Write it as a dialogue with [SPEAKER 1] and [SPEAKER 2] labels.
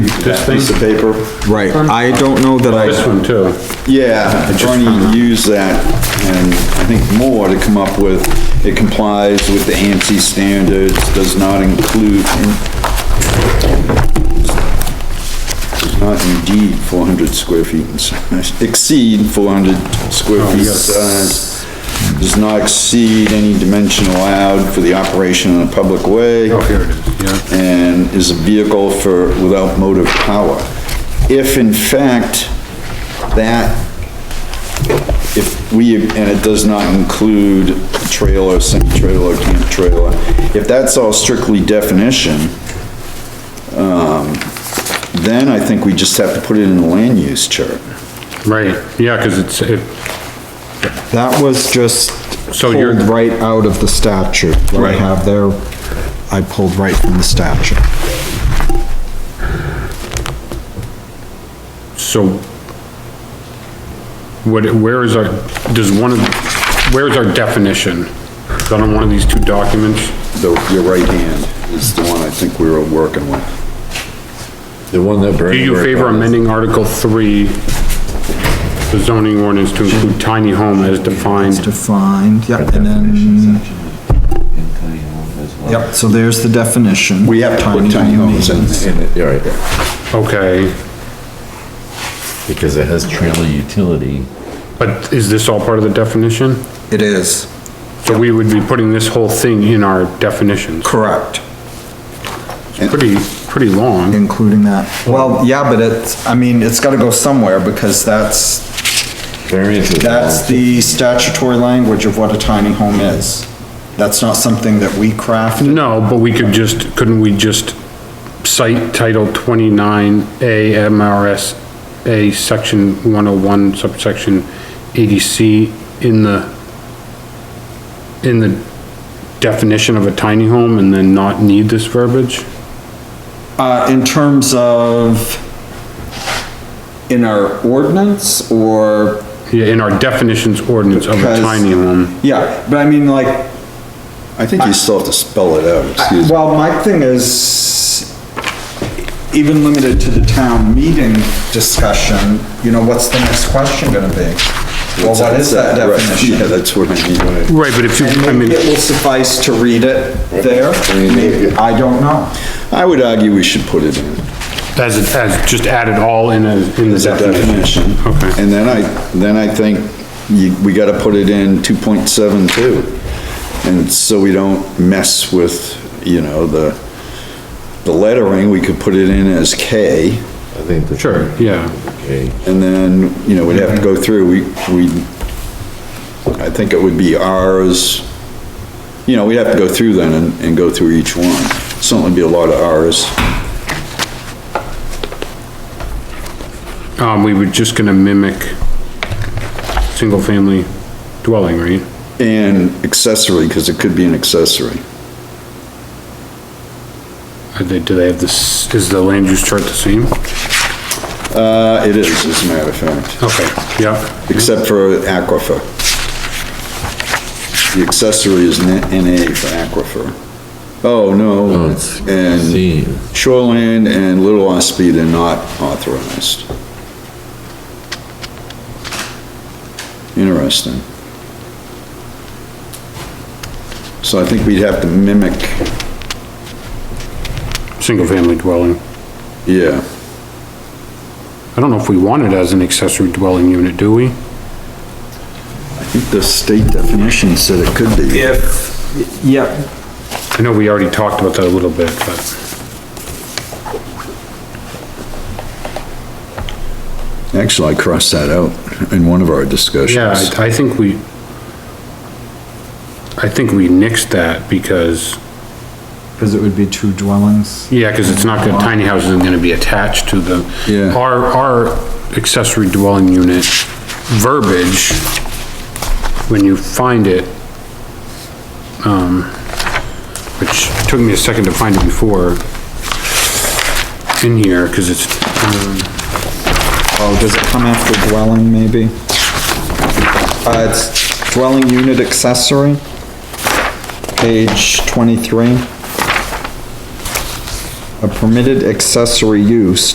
[SPEAKER 1] that piece of paper.
[SPEAKER 2] Right, I don't know that
[SPEAKER 3] This
[SPEAKER 2] I,
[SPEAKER 3] one too.
[SPEAKER 1] Yeah, Bernie used that and I think more to come up with, it complies with the AMC standards, does not include in- does not indeed four hundred square feet in size, exceed four hundred square feet in size, does not exceed any dimension allowed for the operation in a public way.
[SPEAKER 3] Oh, Here it is, yeah.
[SPEAKER 1] and is a vehicle for, without motive power. If in fact, that, if we, and it does not include trailer, semi-trailer, camp trailer, if that's all strictly definition, um, then I think we just have to put it in the land use chart.
[SPEAKER 3] Right, yeah, cause it's, it,
[SPEAKER 2] that was just
[SPEAKER 3] So you're-
[SPEAKER 2] pulled right out of the statute. What I
[SPEAKER 1] Right.
[SPEAKER 2] have there, I pulled right from the statute.
[SPEAKER 3] so. What, where is our, does one of, where is our definition? Is that on one of these two documents?
[SPEAKER 1] The, your right hand is the one I think we were working with.
[SPEAKER 4] The one that
[SPEAKER 3] Do
[SPEAKER 4] Bernie.
[SPEAKER 3] you
[SPEAKER 4] worked
[SPEAKER 3] favor
[SPEAKER 4] on.
[SPEAKER 3] amending Article three, the zoning ordinance to include tiny home as defined?
[SPEAKER 2] Defined, yeah, and
[SPEAKER 4] mm,
[SPEAKER 2] then, yep, so there's the definition.
[SPEAKER 1] We have to put tiny homes in there.
[SPEAKER 4] In it, yeah, right there.
[SPEAKER 3] Okay,
[SPEAKER 4] Because it has trailer utility.
[SPEAKER 3] but is this all part of the definition?
[SPEAKER 2] It is,
[SPEAKER 3] So we would be putting this whole thing in our definitions.
[SPEAKER 2] correct.
[SPEAKER 3] It's pretty, pretty long.
[SPEAKER 2] including that. Well, yeah, but it's, I mean, it's gotta go somewhere because that's,
[SPEAKER 4] Variance is.
[SPEAKER 2] that's the statutory language of what a tiny home is. That's not something that we crafted.
[SPEAKER 3] No, but we could just, couldn't we just cite Title twenty-nine A MRS A, Section one oh one, subsection eighty C in the, in the definition of a tiny home and then not need this verbiage?
[SPEAKER 2] Uh, in terms of in our ordinance or,
[SPEAKER 3] Yeah, in our definitions ordinance of a
[SPEAKER 2] Because-
[SPEAKER 3] tiny home.
[SPEAKER 2] yeah, but I mean like,
[SPEAKER 1] I think you still have to spell it out, excuse me.
[SPEAKER 2] well, my thing is even limited to the town meeting discussion, you know, what's the next question gonna be? Well, what is that
[SPEAKER 1] Right,
[SPEAKER 2] definition?
[SPEAKER 1] Yeah, that's what I mean. when I-
[SPEAKER 3] Right, but if you, I
[SPEAKER 2] And
[SPEAKER 3] mean,
[SPEAKER 2] maybe it will suffice to read it there, maybe, I don't know.
[SPEAKER 1] I would argue we should put it in.
[SPEAKER 3] as it, as, just add it all in a, in the
[SPEAKER 1] As a
[SPEAKER 3] definition.
[SPEAKER 1] definition.
[SPEAKER 3] Okay.
[SPEAKER 1] And then I, then I think you, we gotta put it in two point seven two. And so we don't mess with, you know, the, the lettering, we could put it in as K.
[SPEAKER 4] I think the.
[SPEAKER 3] Sure, yeah.
[SPEAKER 4] Okay,
[SPEAKER 1] And then, you know, we'd have to go through, we, we, I think it would be Rs. You know, we'd have to go through then and, and go through each one. Certainly be a lot of Rs.
[SPEAKER 3] Um, we were just gonna mimic single-family dwelling, right?
[SPEAKER 1] And accessory, cause it could be an accessory.
[SPEAKER 3] Are they, do they have this, is the land use chart the same?
[SPEAKER 1] Uh, it is, as a matter of fact.
[SPEAKER 3] Okay, yeah,
[SPEAKER 1] except for aquifer. The accessory is N- NA for aquifer. Oh,
[SPEAKER 4] oh,
[SPEAKER 1] no,
[SPEAKER 4] it's
[SPEAKER 1] and
[SPEAKER 4] C.
[SPEAKER 1] shoreland and Little Ospey, they're not authorized. Interesting. So I think we'd have to mimic,
[SPEAKER 3] single-family dwelling.
[SPEAKER 1] yeah,
[SPEAKER 3] I don't know if we want it as an accessory dwelling unit, do we?
[SPEAKER 1] I think the state definition said it could be.
[SPEAKER 2] If, yeah,
[SPEAKER 3] I know we already talked about that a little bit, but,
[SPEAKER 1] Actually, I crossed that out in one of our discussions.
[SPEAKER 3] yeah, I, I think we, I think we nixed that because,
[SPEAKER 2] because it would be two dwellings.
[SPEAKER 3] yeah, cause it's not, gonna tiny house isn't gonna be attached to the.
[SPEAKER 1] Yeah.
[SPEAKER 3] Our, our accessory dwelling unit verbiage, when you find it, um, which took me a second to find it before in here, because it's, um,
[SPEAKER 2] Oh, does it come after dwelling, maybe? Uh, it's dwelling unit accessory, page twenty-three. A permitted accessory use